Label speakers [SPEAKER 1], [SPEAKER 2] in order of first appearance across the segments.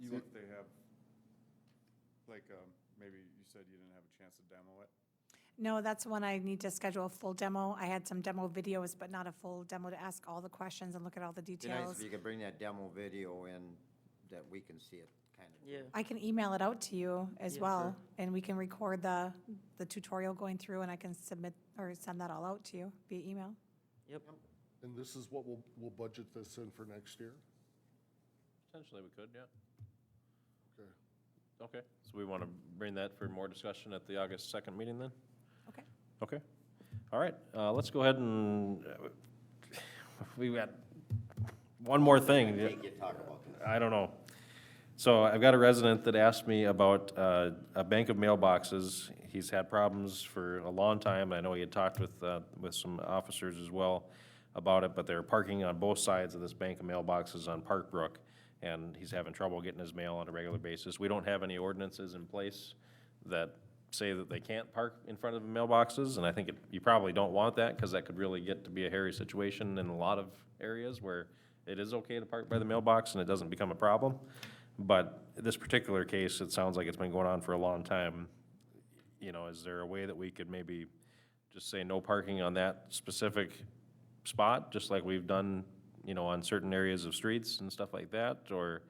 [SPEAKER 1] You
[SPEAKER 2] See
[SPEAKER 1] want-
[SPEAKER 2] if they have, like, um, maybe you said you didn't have a chance to demo it.
[SPEAKER 3] No, that's when I need to schedule a full demo. I had some demo videos, but not a full demo to ask all the questions and look at all the
[SPEAKER 4] Be nice if
[SPEAKER 3] details.
[SPEAKER 4] you could bring that demo video in, that we can see it, kind of.
[SPEAKER 5] Yeah,
[SPEAKER 3] I can email it out to you as
[SPEAKER 5] Yeah,
[SPEAKER 3] well, and we can record the, the tutorial going through, and I can submit or send that all out to you via email.
[SPEAKER 5] yep,
[SPEAKER 1] And this is what we'll, we'll budget this in for next year?
[SPEAKER 6] Potentially, we could, yeah.
[SPEAKER 1] Okay.
[SPEAKER 6] Okay, so we want to bring that for more discussion at the August 2nd meeting then?
[SPEAKER 3] Okay.
[SPEAKER 6] Okay, all right, uh, let's go ahead and, uh, we've got one more thing.
[SPEAKER 4] I think you talk about this.
[SPEAKER 6] I don't know. So I've got a resident that asked me about uh, a bank of mailboxes. He's had problems for a long time. I know he had talked with, uh, with some officers as well about it, but they're parking on both sides of this bank of mailboxes on Park Brook, and he's having trouble getting his mail on a regular basis. We don't have any ordinances in place that say that they can't park in front of mailboxes, and I think it- you probably don't want that, because that could really get to be a hairy situation in a lot of areas where it is okay to park by the mailbox and it doesn't become a problem. But this particular case, it sounds like it's been going on for a long time. You know, is there a way that we could maybe just say no parking on that specific spot, just like we've done, you know, on certain areas of streets and stuff like that? Or,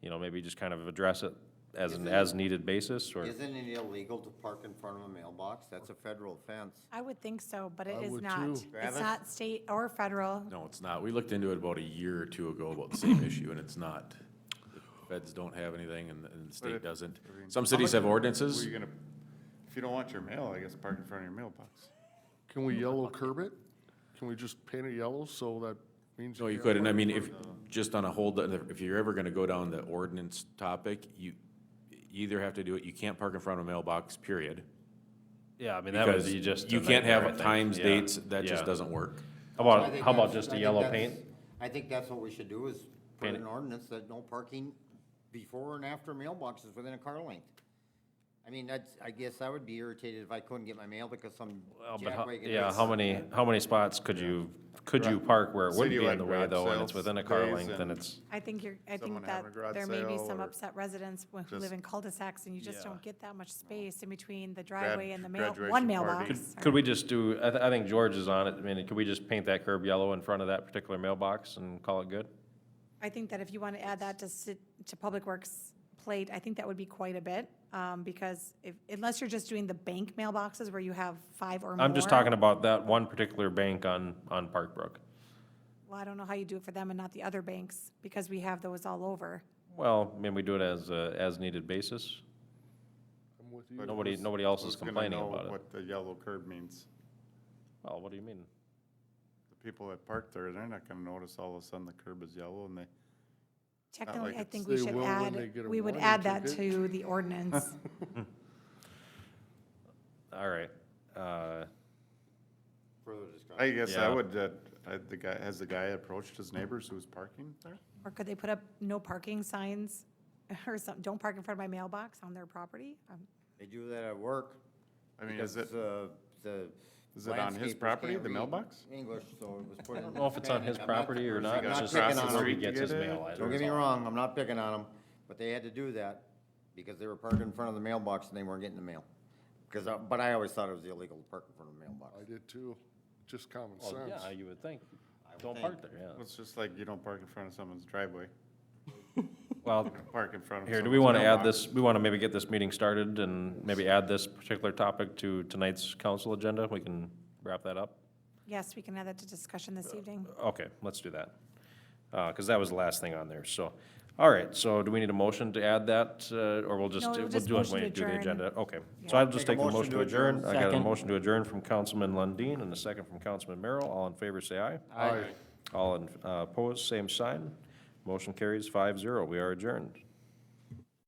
[SPEAKER 6] you know, maybe just kind of address it as an as-needed basis, or?
[SPEAKER 4] Isn't it illegal to park in front of a mailbox? That's a federal offense.
[SPEAKER 3] I would think so, but it
[SPEAKER 1] I
[SPEAKER 3] is
[SPEAKER 1] would
[SPEAKER 3] not.
[SPEAKER 1] too.
[SPEAKER 4] Travis?
[SPEAKER 3] It's not state or federal.
[SPEAKER 7] No, it's not. We looked into it about a year or two ago about the same issue, and it's not. The Feds don't have anything, and, and the
[SPEAKER 2] it-
[SPEAKER 7] state doesn't.
[SPEAKER 2] I mean,
[SPEAKER 7] Some
[SPEAKER 2] how
[SPEAKER 7] cities
[SPEAKER 2] much-
[SPEAKER 7] have
[SPEAKER 2] Were
[SPEAKER 7] ordinances.
[SPEAKER 2] you gonna, if you don't want your mail, I guess park in front of your mailbox.
[SPEAKER 1] Can we yellow curb it? Can we just paint it yellow so that means?
[SPEAKER 7] No, you
[SPEAKER 1] can't
[SPEAKER 7] could, and I
[SPEAKER 1] park
[SPEAKER 7] mean,
[SPEAKER 1] in
[SPEAKER 7] if,
[SPEAKER 1] front
[SPEAKER 7] just on a hold, if you're ever gonna go down the ordinance topic, you you either have to do it, you can't park in front of a mailbox, period.
[SPEAKER 6] Yeah, I mean, that would
[SPEAKER 7] Because
[SPEAKER 6] be just.
[SPEAKER 7] you
[SPEAKER 6] a
[SPEAKER 7] can't
[SPEAKER 6] nightmare, I
[SPEAKER 7] have
[SPEAKER 6] think.
[SPEAKER 7] times,
[SPEAKER 6] Yeah.
[SPEAKER 7] dates, that
[SPEAKER 6] Yeah.
[SPEAKER 7] just doesn't work.
[SPEAKER 6] How
[SPEAKER 4] So I
[SPEAKER 6] about,
[SPEAKER 4] think
[SPEAKER 6] how about
[SPEAKER 4] that's-
[SPEAKER 6] just
[SPEAKER 4] I
[SPEAKER 6] a
[SPEAKER 4] think
[SPEAKER 6] yellow
[SPEAKER 4] that's-
[SPEAKER 6] paint?
[SPEAKER 4] I think that's what we should do is put
[SPEAKER 6] Paint
[SPEAKER 4] an
[SPEAKER 6] it.
[SPEAKER 4] ordinance that no parking before and after mailboxes within a car length. I mean, that's, I guess I would be irritated if I couldn't get my mail because some
[SPEAKER 6] Well, but how,
[SPEAKER 4] jackwagon.
[SPEAKER 6] yeah, how many, how many spots could you, could you park where it would
[SPEAKER 2] City
[SPEAKER 6] be in
[SPEAKER 2] like
[SPEAKER 6] the way
[SPEAKER 2] garage
[SPEAKER 6] though, and
[SPEAKER 2] sales
[SPEAKER 6] it's within a car
[SPEAKER 2] days
[SPEAKER 6] length and
[SPEAKER 2] and-
[SPEAKER 6] it's,
[SPEAKER 3] I think you're, I
[SPEAKER 2] Someone
[SPEAKER 3] think that
[SPEAKER 2] having a garage
[SPEAKER 3] there may be
[SPEAKER 2] sale
[SPEAKER 3] some
[SPEAKER 2] or
[SPEAKER 3] upset residents who
[SPEAKER 2] just-
[SPEAKER 3] live in cul-de-sacs, and you just
[SPEAKER 6] Yeah.
[SPEAKER 3] don't get that much space in between the driveway and the mail,
[SPEAKER 2] graduation
[SPEAKER 3] one
[SPEAKER 2] party.
[SPEAKER 3] mailbox.
[SPEAKER 2] Could-
[SPEAKER 3] or-
[SPEAKER 6] could we just do, I, th- I think George is on it, I mean, could we just paint that curb yellow in front of that particular mailbox and call it good?
[SPEAKER 3] I think that if you want to add that to, ci- to Public Works plate, I think that would be quite a bit, um, because if, unless you're just doing the bank mailboxes where you have five or more.
[SPEAKER 6] I'm just talking about that one particular bank on, on Park Brook.
[SPEAKER 3] Well, I don't know how you do it for them and not the other banks, because we have those all over.
[SPEAKER 6] Well, I mean, we do it as a, as needed basis.
[SPEAKER 1] I'm with you.
[SPEAKER 2] But
[SPEAKER 6] Nobody,
[SPEAKER 2] who's-
[SPEAKER 6] nobody else is
[SPEAKER 2] who's gonna
[SPEAKER 6] complaining
[SPEAKER 2] know
[SPEAKER 6] about it.
[SPEAKER 2] What the yellow curb means.
[SPEAKER 6] Well, what do you mean?
[SPEAKER 2] The people that park there, they're not gonna notice all of a sudden the curb is yellow and they,
[SPEAKER 3] Technically,
[SPEAKER 2] like
[SPEAKER 3] I
[SPEAKER 2] it's-
[SPEAKER 3] think we
[SPEAKER 1] They
[SPEAKER 3] should
[SPEAKER 1] will when they
[SPEAKER 3] add,
[SPEAKER 1] get a
[SPEAKER 3] we would
[SPEAKER 1] warning
[SPEAKER 3] add that
[SPEAKER 1] ticket.
[SPEAKER 3] to the ordinance.
[SPEAKER 6] All right, uh,
[SPEAKER 4] Further discussion.
[SPEAKER 2] I guess I
[SPEAKER 6] Yeah.
[SPEAKER 2] would, uh, I, the guy, has the guy approached his neighbors who was parking there?
[SPEAKER 3] Or could they put up no parking signs or something, don't park in front of my mailbox on their property? Um,
[SPEAKER 4] They do that at work.
[SPEAKER 2] I mean, is it,
[SPEAKER 4] because, uh, the
[SPEAKER 2] is it on his
[SPEAKER 4] landscapers
[SPEAKER 2] property,
[SPEAKER 4] can't
[SPEAKER 2] the
[SPEAKER 4] read
[SPEAKER 2] mailbox?
[SPEAKER 4] English, so it was put in.
[SPEAKER 6] I don't know if it's on his
[SPEAKER 4] Hispanic. I'm not-
[SPEAKER 6] property or
[SPEAKER 4] I'm
[SPEAKER 6] not, it's
[SPEAKER 2] not
[SPEAKER 6] just
[SPEAKER 4] picking
[SPEAKER 2] on
[SPEAKER 6] where he
[SPEAKER 2] him.
[SPEAKER 6] gets his
[SPEAKER 2] Get it?
[SPEAKER 6] mail. I
[SPEAKER 4] Don't
[SPEAKER 6] don't
[SPEAKER 4] get me
[SPEAKER 6] know.
[SPEAKER 4] wrong, I'm not picking on them, but they had to do that because they were parked in front of the mailbox and they weren't getting the mail. Because, but I always thought it was illegal to park in front of the mailbox.
[SPEAKER 1] I did too. Just common
[SPEAKER 6] Well,
[SPEAKER 1] sense.
[SPEAKER 6] yeah, you would think.
[SPEAKER 4] would
[SPEAKER 6] Don't
[SPEAKER 4] think.
[SPEAKER 6] park there, yeah.
[SPEAKER 2] It's just like you don't park in front of someone's driveway,
[SPEAKER 6] Well,
[SPEAKER 2] park in front of.
[SPEAKER 6] here, do we
[SPEAKER 2] someone's
[SPEAKER 6] want to add
[SPEAKER 2] mailbox.
[SPEAKER 6] this, we want to maybe get this meeting started and maybe add this particular topic to tonight's council agenda? We can wrap that up?
[SPEAKER 3] Yes, we can add that to discussion this
[SPEAKER 1] Uh,
[SPEAKER 3] evening.
[SPEAKER 6] Okay, let's do that. Because that was the last thing on there, so. All right, so do we need a motion to add that, uh, or we'll just,
[SPEAKER 3] No,
[SPEAKER 6] we'll
[SPEAKER 3] we'll just
[SPEAKER 6] do it
[SPEAKER 3] motion
[SPEAKER 6] when
[SPEAKER 3] to
[SPEAKER 6] you do the
[SPEAKER 3] adjourn.
[SPEAKER 6] agenda? Okay, so
[SPEAKER 3] Yeah.
[SPEAKER 6] I'll just
[SPEAKER 4] Make a
[SPEAKER 6] take the motion to adjourn. I got a
[SPEAKER 5] Second.
[SPEAKER 6] motion to adjourn from Councilman Lundin and a second from Councilman Merrill. All in favor, say aye.
[SPEAKER 1] Aye.
[SPEAKER 6] All in- uh, opposed, same sign. Motion carries five zero. We are adjourned.